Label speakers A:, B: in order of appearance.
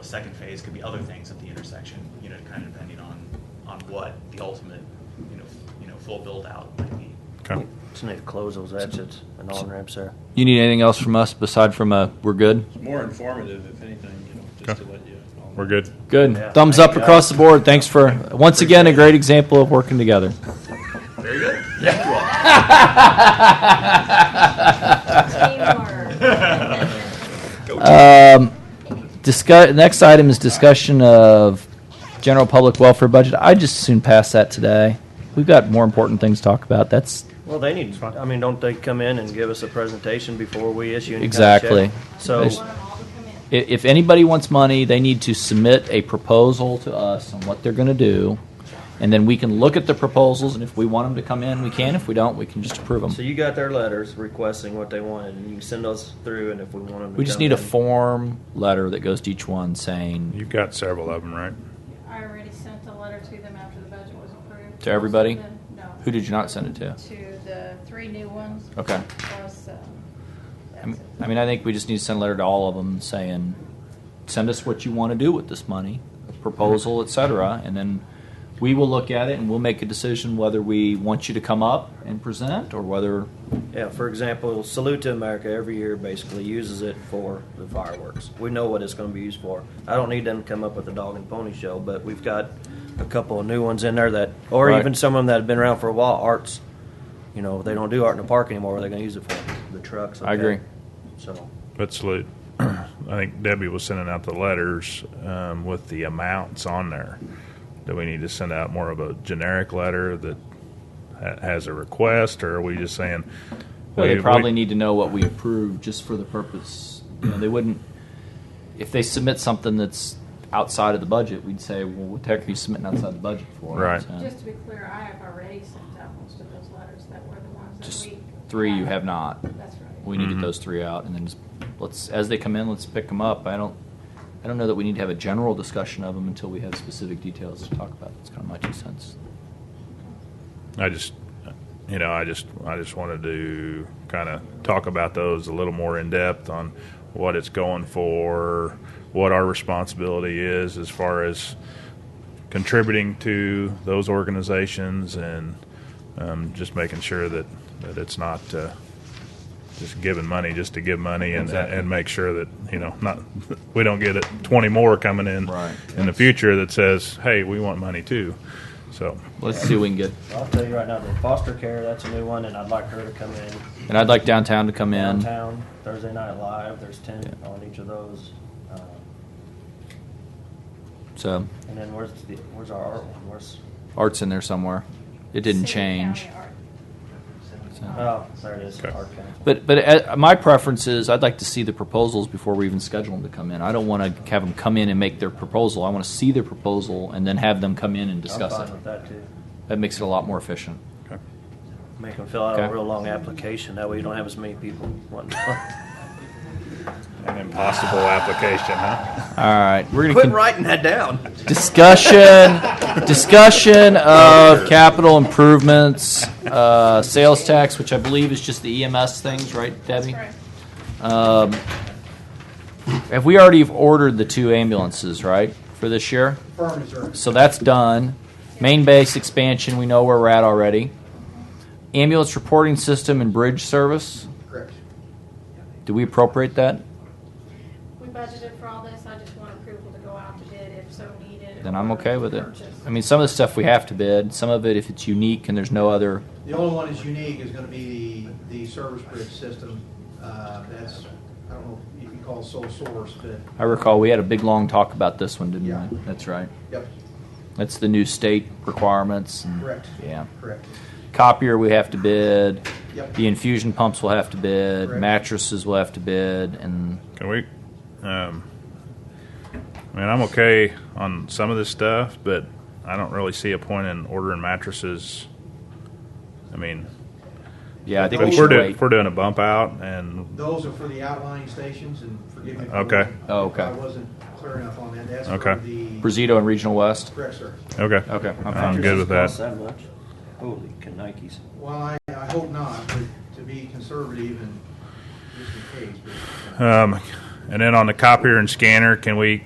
A: A second phase could be other things at the intersection, you know, kind of depending on, on what the ultimate, you know, you know, full build-out might be.
B: Okay.
C: Just need to close those exits and on ramps there.
D: You need anything else from us beside from a we're good?
E: More informative, if anything, you know, just to let you. all
B: We're
E: know.
B: good.
D: Good.
C: Yeah.
D: Thumbs up across the board. Thanks for once again a great example of working together.
A: Very good.
D: Um, discuss, next item is discussion of general public welfare budget. I just as soon pass that today. We've got more important things to talk about. That's
C: Well, they need, I mean, don't they come in and give us a presentation before we issue any kind of check?
D: exactly.
C: So,
D: There's- i- if anybody wants money, they need to submit a proposal to us on what they're going to do, and then we can look at the proposals. And if we want them to come in, we can. If we don't, we can just approve them.
C: so you got their letters requesting what they wanted, and you can send those through, and if we want them to
D: We just
C: come
D: need a
C: in-
D: form letter that goes to each one saying,
B: You've got several of them, right?
F: I already sent a letter to them after the budget was approved.
D: To everybody?
F: No.
D: who did you not send it to?
F: To the three new ones.
D: Okay.
F: Plus, um,
D: I mean,
F: that's it.
D: I mean, I think we just need to send a letter to all of them saying, send us what you want to do with this money, a proposal, et cetera, and then we will look at it and we'll make a decision whether we want you to come up and present or whether,
C: Yeah, for example, Salute to America every year basically uses it for the fireworks. We know what it's going to be used for. I don't need them to come up with a dog and pony show, but we've got a couple of new ones in there that, or
D: Right.
C: even some of them that have been around for a while. Arts, you know, they don't do art in the park anymore. What are they going to use it for? The trucks.
D: I agree.
C: So,
B: But salute. I think Debbie was sending out the letters um, with the amounts on there. Do we need to send out more of a generic letter that ha- has a request, or are we just saying?
D: well,
B: we-
D: they
B: we-
D: probably need to know what we approve just for the purpose, you know, they wouldn't, if they submit something that's outside of the budget, we'd say, well, what the heck are you submitting outside the budget for?
B: Right.
D: So-
F: Just to be clear, I have already sent out most of those letters that were the ones
D: Just
F: that we.
D: three you have not.
F: That's right.
D: We need to
B: Mhm.
D: get those three out, and then just, let's, as they come in, let's pick them up. I don't, I don't know that we need to have a general discussion of them until we have specific details to talk about. It's kind of my two cents.
B: I just, you know, I just, I just wanted to kind of talk about those a little more in depth on what it's going for, what our responsibility is as far as contributing to those organizations, and um, just making sure that that it's not. Uh, just giving money just to give money and,
D: Exactly.
B: and make sure that you know not we don't get it 20 more coming in
D: Right.
B: in the future that says hey we want money too so
D: Let's see what we can get.
C: I'll tell you right now, the foster care, that's a new one, and I'd like her to come in.
D: And I'd like downtown to come in.
C: Downtown, Thursday Night Live, there's 10 on each of those. Um,
D: So,
C: And then where's the, where's our art one? Where's
D: art's in there somewhere. It didn't
F: City,
D: change.
F: county, Um, art.
D: So-
C: oh there it is
B: Uh-huh. Okay.
C: art council.
D: But, but uh, my preference is I'd like to see the proposals before we even schedule them to come in. I don't want to have them come in and make their proposal. I want to see their proposal and then have them come in and discuss
C: I'm fine
D: it.
C: with that too.
D: That makes it a lot more efficient.
B: okay.
C: Make them fill out
D: Okay.
C: a real long application. That way you don't have as many people wanting.
B: An impossible application, huh?
D: All right, we're gonna
C: Quit
D: con-
C: writing that down.
D: discussion discussion of capital improvements, uh, sales tax, which I believe is just the EMS things, right, Debbie?
F: That's right.
D: Um, have we already ordered the two ambulances, right, for this year? So that's done. Main base expansion, we know where we're at already. Ambulance reporting system and bridge service.
G: Correct.
D: Do we appropriate that?
F: We budgeted for all this, I just want approval to go out to bid if so needed.
D: Then I'm
F: or
D: okay with it.
F: purchase.
D: I mean, some of the stuff we have to bid, some of it if it's unique and there's no other
G: The only one that's unique is gonna be the, the service bridge system. Uh, that's, I don't know if you can call it sole source, but,
D: I recall we had a big long talk about this one, didn't
G: Yeah.
D: we? That's right.
G: yep,
D: That's the new state requirements. and-
G: Correct.
D: Yeah.
G: correct.
D: Copier we have to bid.
G: Yep.
D: The infusion pumps will have to bid.
G: Correct.
D: Mattresses will have to bid, and
B: Can we? Um, I mean, I'm okay on some of this stuff, but I don't really see a point in ordering mattresses. I mean,
D: yeah, I think
B: if
D: we
B: we're,
D: should
B: do-
D: wait.
B: if we're doing a bump out, and
G: Those are for the outlying stations and forgive me. for-
B: Okay.
D: Oh, okay.
G: if I wasn't clear enough on that. That's
B: Okay.
G: for the,
D: Brisito and Regional West.
G: correct, sir.
B: okay,
D: Okay, I'm fine.
C: Um,
B: I'm good with
C: Costs
B: that.
C: much? Holy canikes.
G: Well, I, I hope not, but to be conservative and just in case, but. uh,
B: Um, and then on the copier and scanner, can we?